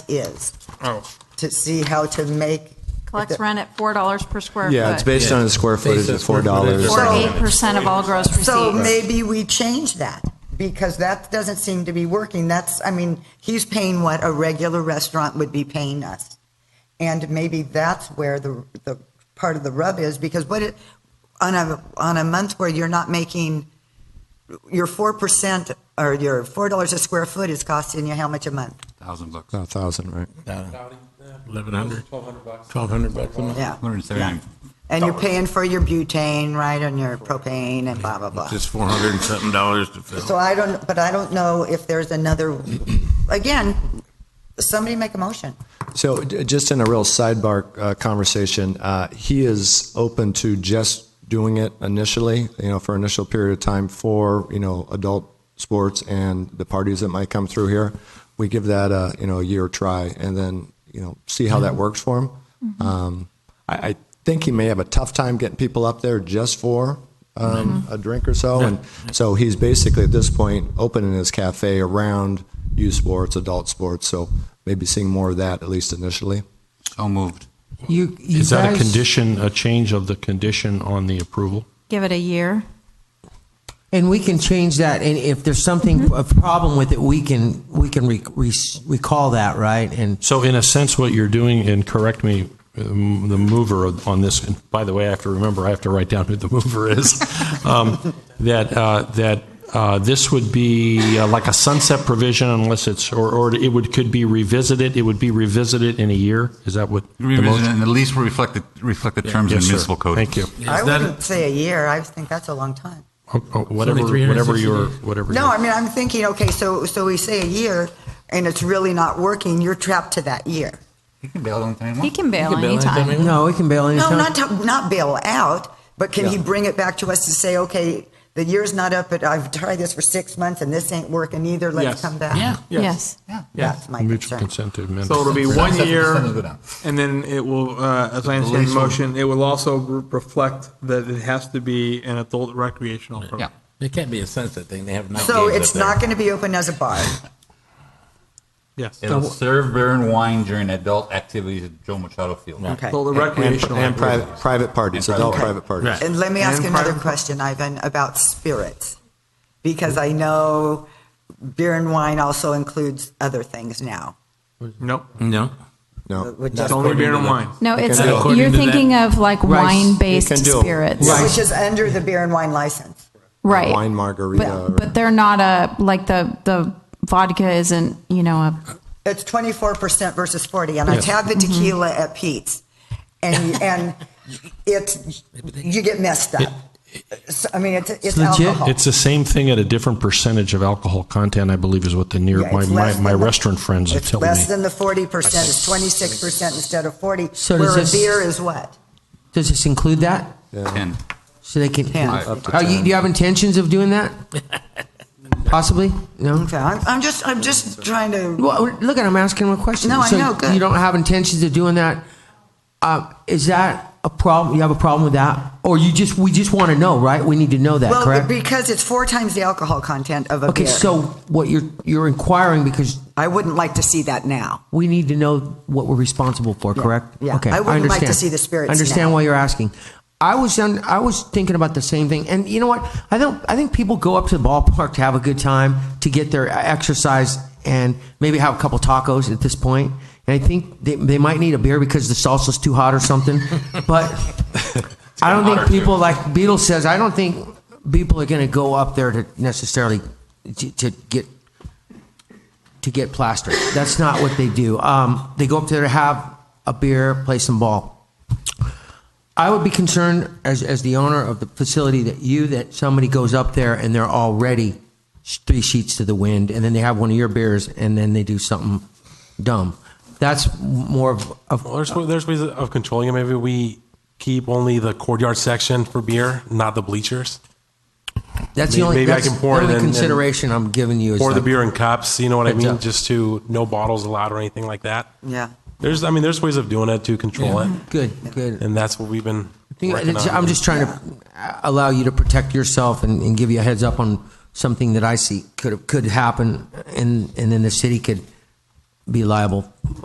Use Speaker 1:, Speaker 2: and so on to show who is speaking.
Speaker 1: is,
Speaker 2: Oh,
Speaker 1: to see how to make.
Speaker 3: Collects rent at four dollars per square foot.
Speaker 4: Yeah, it's based on the square footage
Speaker 5: on
Speaker 4: of four
Speaker 5: square
Speaker 4: dollars.
Speaker 5: footage.
Speaker 3: Or eight percent of all gross receipts.
Speaker 1: So maybe we change that, because that doesn't seem to be working. That's, I mean, he's paying what a regular restaurant would be paying us. And maybe that's where the, the part of the rub is, because what it, on a, on a month where you're not making, your four percent or your four dollars a square foot is costing you how much a month?
Speaker 6: Thousand bucks.
Speaker 4: No, thousand, right?
Speaker 5: Eleven hundred.
Speaker 7: Twelve hundred bucks.
Speaker 5: Twelve hundred bucks a month.
Speaker 1: Yeah.
Speaker 6: Hundred and seventy-nine.
Speaker 1: And you're paying for your butane, right, and your propane and blah, blah, blah.
Speaker 5: Just four hundred and something dollars to
Speaker 1: So
Speaker 5: fill.
Speaker 1: I don't, but I don't know if there's another, again, somebody make a motion.
Speaker 4: So j- just in a real sidebar uh, conversation, uh, he is open to just doing it initially, you know, for an initial period of time for, you know, adult sports and the parties that might come through here. We give that a, you know, a year try and then, you know, see how that works for him.
Speaker 3: Mm-hmm.
Speaker 4: Um, I, I think he may have a tough time getting people up there just for um, a drink or so. And so he's basically at this point opening his cafe around youth sports, adult sports. So maybe seeing more of that, at least initially.
Speaker 6: So moved.
Speaker 8: You, you
Speaker 9: Is that a
Speaker 8: guys,
Speaker 9: condition, a change of the condition on the approval?
Speaker 3: Give it a year.
Speaker 8: and we can change that, and if there's
Speaker 1: Mm-hmm.
Speaker 8: something, a problem with it, we can, we can re- re- recall that, right? And
Speaker 9: So in a sense, what you're doing, and correct me, um, the mover on this, and by the way, I have to remember, I have to write down who the mover is, um, that, uh, that uh, this would be uh, like a sunset provision unless it's, or, or it would, could be revisited, it would be revisited in a year? Is that what? the
Speaker 6: Revisit
Speaker 9: motion-
Speaker 6: and at least reflect the, reflect the terms in
Speaker 9: Yes,
Speaker 6: the
Speaker 9: sir.
Speaker 6: municipal code.
Speaker 9: Thank you.
Speaker 1: I
Speaker 5: Is that-
Speaker 1: wouldn't say a year, I think that's a long time.
Speaker 9: Oh, oh, Whatever,
Speaker 5: Only 360
Speaker 9: whatever your, whatever.
Speaker 1: No,
Speaker 9: your-
Speaker 1: I mean, I'm thinking, okay, so, so we say a year, and it's really not working, you're trapped to that year.
Speaker 6: You can bail anytime you
Speaker 3: He
Speaker 6: want.
Speaker 3: can bail
Speaker 5: bail anytime he
Speaker 3: anytime.
Speaker 8: no, we can bail
Speaker 1: No,
Speaker 8: anytime.
Speaker 1: not, to- not bail out, but can he
Speaker 8: Yeah.
Speaker 1: bring it back to us to say, okay, the year's not up, but I've tried this for six months and this ain't working either, let's
Speaker 9: Yes.
Speaker 1: come back?
Speaker 6: Yeah.
Speaker 3: Yes.
Speaker 1: That's my
Speaker 9: Mutual
Speaker 1: concern.
Speaker 9: consent to amend.
Speaker 7: So it'll be one
Speaker 6: Sunset
Speaker 7: year,
Speaker 6: percentage go down.
Speaker 7: and then it will, uh, as I understand the motion, it will also re- reflect that it has to be an adult recreational
Speaker 6: Yeah.
Speaker 7: program.
Speaker 5: It can't be a sunset thing. They have night
Speaker 1: So
Speaker 5: games up
Speaker 1: it's
Speaker 5: there.
Speaker 1: not going to be open as a bar.
Speaker 7: Yes.
Speaker 6: It'll serve beer and wine during adult activities at Joe Machado Field.
Speaker 1: Okay.
Speaker 7: Adult recreational.
Speaker 4: And private,
Speaker 7: activities.
Speaker 4: private parties, adult private parties.
Speaker 5: Right.
Speaker 1: And let me ask
Speaker 7: And
Speaker 1: another
Speaker 7: private-
Speaker 1: question, Ivan, about spirits, because I know beer and wine also includes other things now.
Speaker 7: Nope.
Speaker 5: No.
Speaker 4: No.
Speaker 1: which
Speaker 7: It's
Speaker 1: is-
Speaker 7: only beer and wine.
Speaker 3: No, it's,
Speaker 5: do it. According
Speaker 3: you're
Speaker 5: to that-
Speaker 3: thinking of like wine-based
Speaker 4: can do it.
Speaker 3: spirits.
Speaker 1: Which is under the beer and wine license.
Speaker 3: Right.
Speaker 4: Wine margarita or-
Speaker 3: But, but they're not a, like the, the vodka isn't, you know, a,
Speaker 1: It's twenty-four percent versus forty, and I have the tequila at Pete's, and, and it's, you get messed up. So, I mean, it's, it's
Speaker 8: legit.
Speaker 1: alcohol.
Speaker 9: It's the same thing at a different percentage of alcohol content, I believe, is what the near,
Speaker 1: Yeah,
Speaker 9: my,
Speaker 1: it's
Speaker 9: my,
Speaker 1: less
Speaker 9: my
Speaker 1: than the-
Speaker 9: restaurant friends are
Speaker 1: It's
Speaker 9: telling me.
Speaker 1: less than the forty percent, it's twenty-six percent instead of forty,
Speaker 8: So does
Speaker 1: where a
Speaker 8: this-
Speaker 1: beer is what?
Speaker 8: Does this include that?
Speaker 6: Ten.
Speaker 8: So they can,
Speaker 1: Ten.
Speaker 4: Up to
Speaker 8: Oh, you,
Speaker 4: 10.
Speaker 8: do you have intentions of doing that? Possibly? No?
Speaker 1: Okay, I'm, I'm just, I'm just trying to,
Speaker 8: Well, look at, I'm asking him a question.
Speaker 1: No, I
Speaker 8: So
Speaker 1: know, good.
Speaker 8: You don't have intentions of doing that. Uh, is that a problem? You have a problem with that? Or you just, we just want to know, right? We need to know that,
Speaker 1: well,
Speaker 8: correct?
Speaker 1: because it's four times the alcohol content of a
Speaker 8: Okay,
Speaker 1: beer.
Speaker 8: so what you're, you're inquiring because
Speaker 1: I wouldn't like to see that now.
Speaker 8: we need to know what we're responsible for, correct?
Speaker 1: yeah.
Speaker 8: Okay,
Speaker 1: I wouldn't like to
Speaker 8: understand.
Speaker 1: see the spirits
Speaker 8: I understand
Speaker 1: now.
Speaker 8: why you're asking. I was on, I was thinking about the same thing, and you know what? I don't. I think people go up to the ballpark to have a good time, to get their e, exercise, and maybe have a couple tacos at this point. And I think they, they might need a beer because the salsa's too hot or something. but I don't think people like Beatles says. I don't think people are going to go up there to necessarily to, to get to get plastered. That's not what they do. Um, they go up there to have a beer, play some ball. I would be concerned as, as the owner of the facility that you, that somebody goes up there and they're already sh- three sheets to the wind and then they have one of your beers and then they do something dumb. That's more of, of
Speaker 10: Well, there's, wa- there's ways of controlling it. Maybe we keep only the courtyard section for beer, not the bleachers.
Speaker 8: that's the
Speaker 10: Maybe-
Speaker 8: only,
Speaker 10: maybe I
Speaker 8: that's
Speaker 10: can pour
Speaker 8: the
Speaker 10: it
Speaker 8: only
Speaker 10: in and-
Speaker 8: consideration I'm giving you. Is
Speaker 10: Pour the
Speaker 8: like-
Speaker 10: beer in cups, you know what I
Speaker 8: Heads
Speaker 10: mean?
Speaker 8: up.
Speaker 10: Just to no bottles allowed or anything like that.
Speaker 1: Yeah.
Speaker 10: There's, I mean, there's ways of doing it to control it.
Speaker 8: Good, good.
Speaker 10: And that's what we've been.
Speaker 8: I think
Speaker 10: working
Speaker 8: it's-
Speaker 10: on.
Speaker 8: I'm just trying to uh, allow you to protect yourself and, and give you a heads up on something that I see could could happen, and and then the city could be liable